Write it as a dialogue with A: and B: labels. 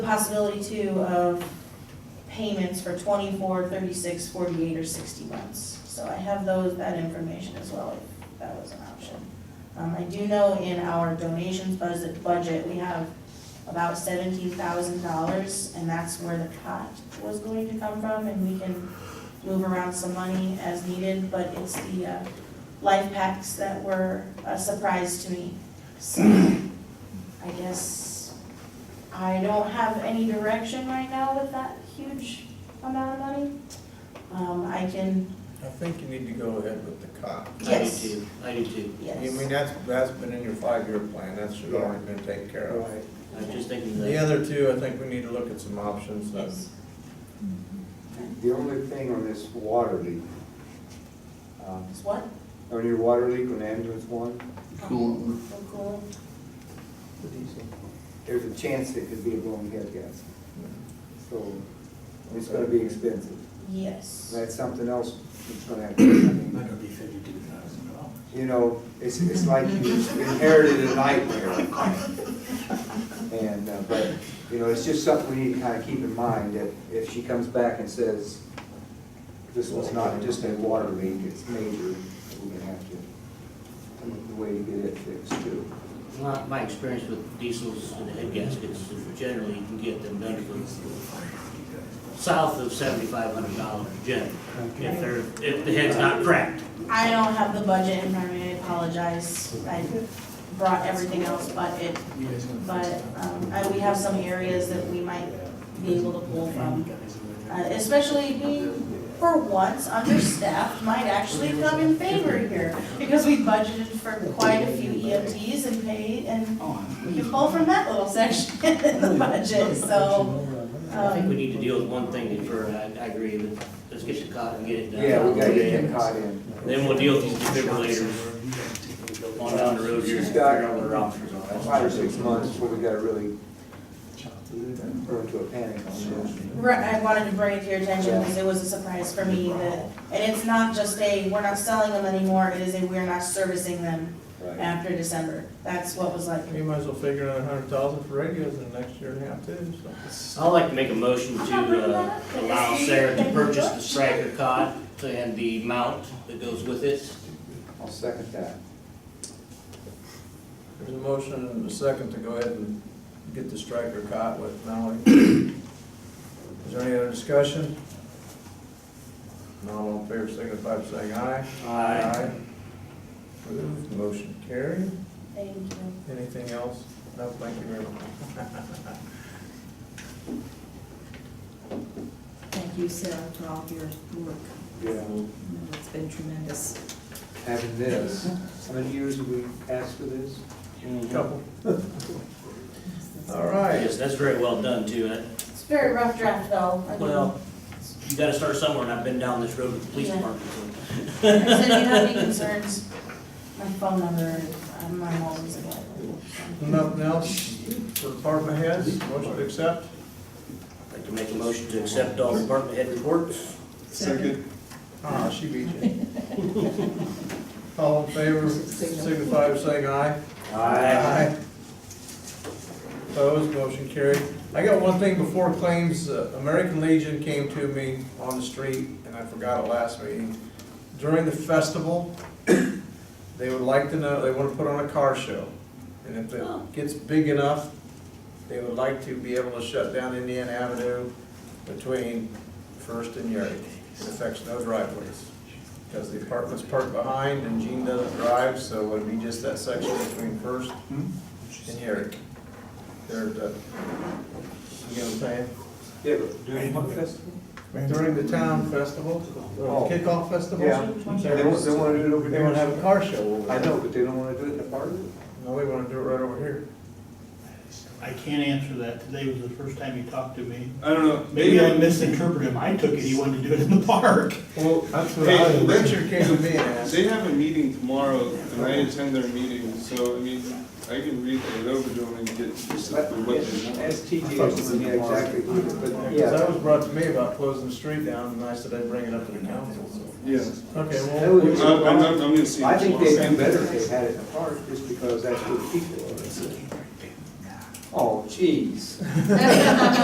A: The Possibility too of payments for 24, 36, 48, or 60 months. So I have those, that information as well, if that was an option. Um, I do know in our donations budget, budget, we have about $17,000, and that's where the pot was going to come from, and we can move around some money as needed, but it's the uh, life packs that were a surprise to me. So I guess I don't have any direction right now with that huge amount of money. Um, I can,
B: I think you need to go ahead with the cot.
A: Yes.
C: I do too, I do too.
B: I
A: yes.
B: mean, that's, that's been in your five-year plan, that should have already been taken care of.
D: Right.
C: I was just thinking
B: The
C: that,
B: other two, I think we need to look at some options, uh,
A: Yes.
D: The only thing on this water leak, um,
A: It's what?
D: on your water leak on ambulance one,
A: Cool. Cool.
D: there's a chance it could be a blown head gas. So it's gonna be expensive.
A: Yes.
D: That's something else that's gonna have to be. I mean,
E: Not gonna be fifty-two thousand dollars.
D: You know, it's, it's like you inherited a nightmare. And, uh, but, you know, it's just something we need to kind of keep in mind that if she comes back and says, this was not just a water leak, it's major, we're gonna have to, look the way to get it fixed too.
C: my, my experience with diesels and head gaskets, is generally you can get them done for south of seventy-five hundred dollars generally, if they're, if the head's not cracked.
A: I don't have the budget in front of me, I apologize. I brought everything else but it,
E: You guys gonna fix
A: but,
E: that?
A: um, I, we have some areas that we might be able to pull
E: You
A: from.
E: guys are
A: Uh, especially being, for once, understaffed might actually come in favor here, because we budgeted for quite a few EMTs and paid, and we can pull from that little section in the budget, so.
C: I think we
A: um,
C: need to deal with one thing in turn, I, I agree, but let's get the cot and get it done.
D: Yeah, we gotta get them caught in.
C: Then we'll deal with these defibrillators on down the road here, and
D: She's
C: figure
D: got-
C: out what our options are.
D: Five or six months before we gotta really burn to a panic on this.
A: Right, I wanted to bring it to your attention, because it was a surprise for me that, and it's not just a, we're not selling them anymore, it is a, we're not servicing them
D: Right.
A: after December. That's what was like,
B: you might as well figure out a hundred thousand for radios in the next year and a half too, so.
C: I'd like to make a motion to uh, allow Sarah to purchase the striker cot and the mount that goes with it.
D: I'll second that.
B: There's a motion and a second to go ahead and get the striker cot with Mallory. Is there any other discussion? Not all in favor, signify by saying aye. Approved, motion carried.
A: thank you.
B: Anything else? No, thank you very much.
F: Thank you, Sarah, for all of your work.
D: Yeah.
F: You know, It's been tremendous.
D: having this. How many years have we asked for this? Mm-hmm.
B: Couple. All
C: Yes,
B: right.
C: that's very well done too. That-
A: It's a very rough draft, though. I mean-
C: Well, you gotta start somewhere and I've been down this road with the police department. so-
A: I said, "Do you have any concerns, my phone number, uh, my mom's always available.
B: Nothing else for department heads? Motion to accept?
C: I'd like to make a motion to accept all department head reports.
F: Second.
B: Ah, she beat you. All in favor, signify by saying aye. Opposed, motion carried. I got one thing before claims, Uh, American Legion came to me on the street, and I forgot it last meeting. During the festival, they would like to know, they want to put on a car show. And if it gets big enough, they would like to be able to shut down Indian Avenue between First and Yard. It affects no driveways, because the apartment's parked behind and Gene doesn't drive, so it would be just that section between First
D: Hmm?
B: and Yard. There's a, you know what I'm saying?
D: Yeah, but during what festival?
B: During the town festival,
D: Oh.
B: or kickoff festival.
D: Yeah, they want, they want to do it over
B: They
D: there.
B: wanna have a car show over there.
D: I know, but they don't want to do it in the park.
B: No, they wanna do it right over here.
G: I can't answer that. Today was the first time he talked to me.
H: I don't know.
G: Maybe I misinterpreted him. I took it he wanted to do it in the park.
B: Well, that's what
H: I-
B: Richard came to me and asked.
H: They have a meeting tomorrow, and I attend their meeting, so, I mean, I can read it over to them and get exactly what they want.
D: As TJ, yeah, exactly, but
B: Because that
D: yeah.
B: was brought to me about closing the street down, and I said I'd bring it up to the council, so.
H: Yeah.
B: Okay,
D: That would be-
B: well,
H: I'm, I'm, I'm gonna see.
D: I think
H: tomorrow.
D: they'd do better if they had it in the park, just because that's where the people are. Oh, jeez.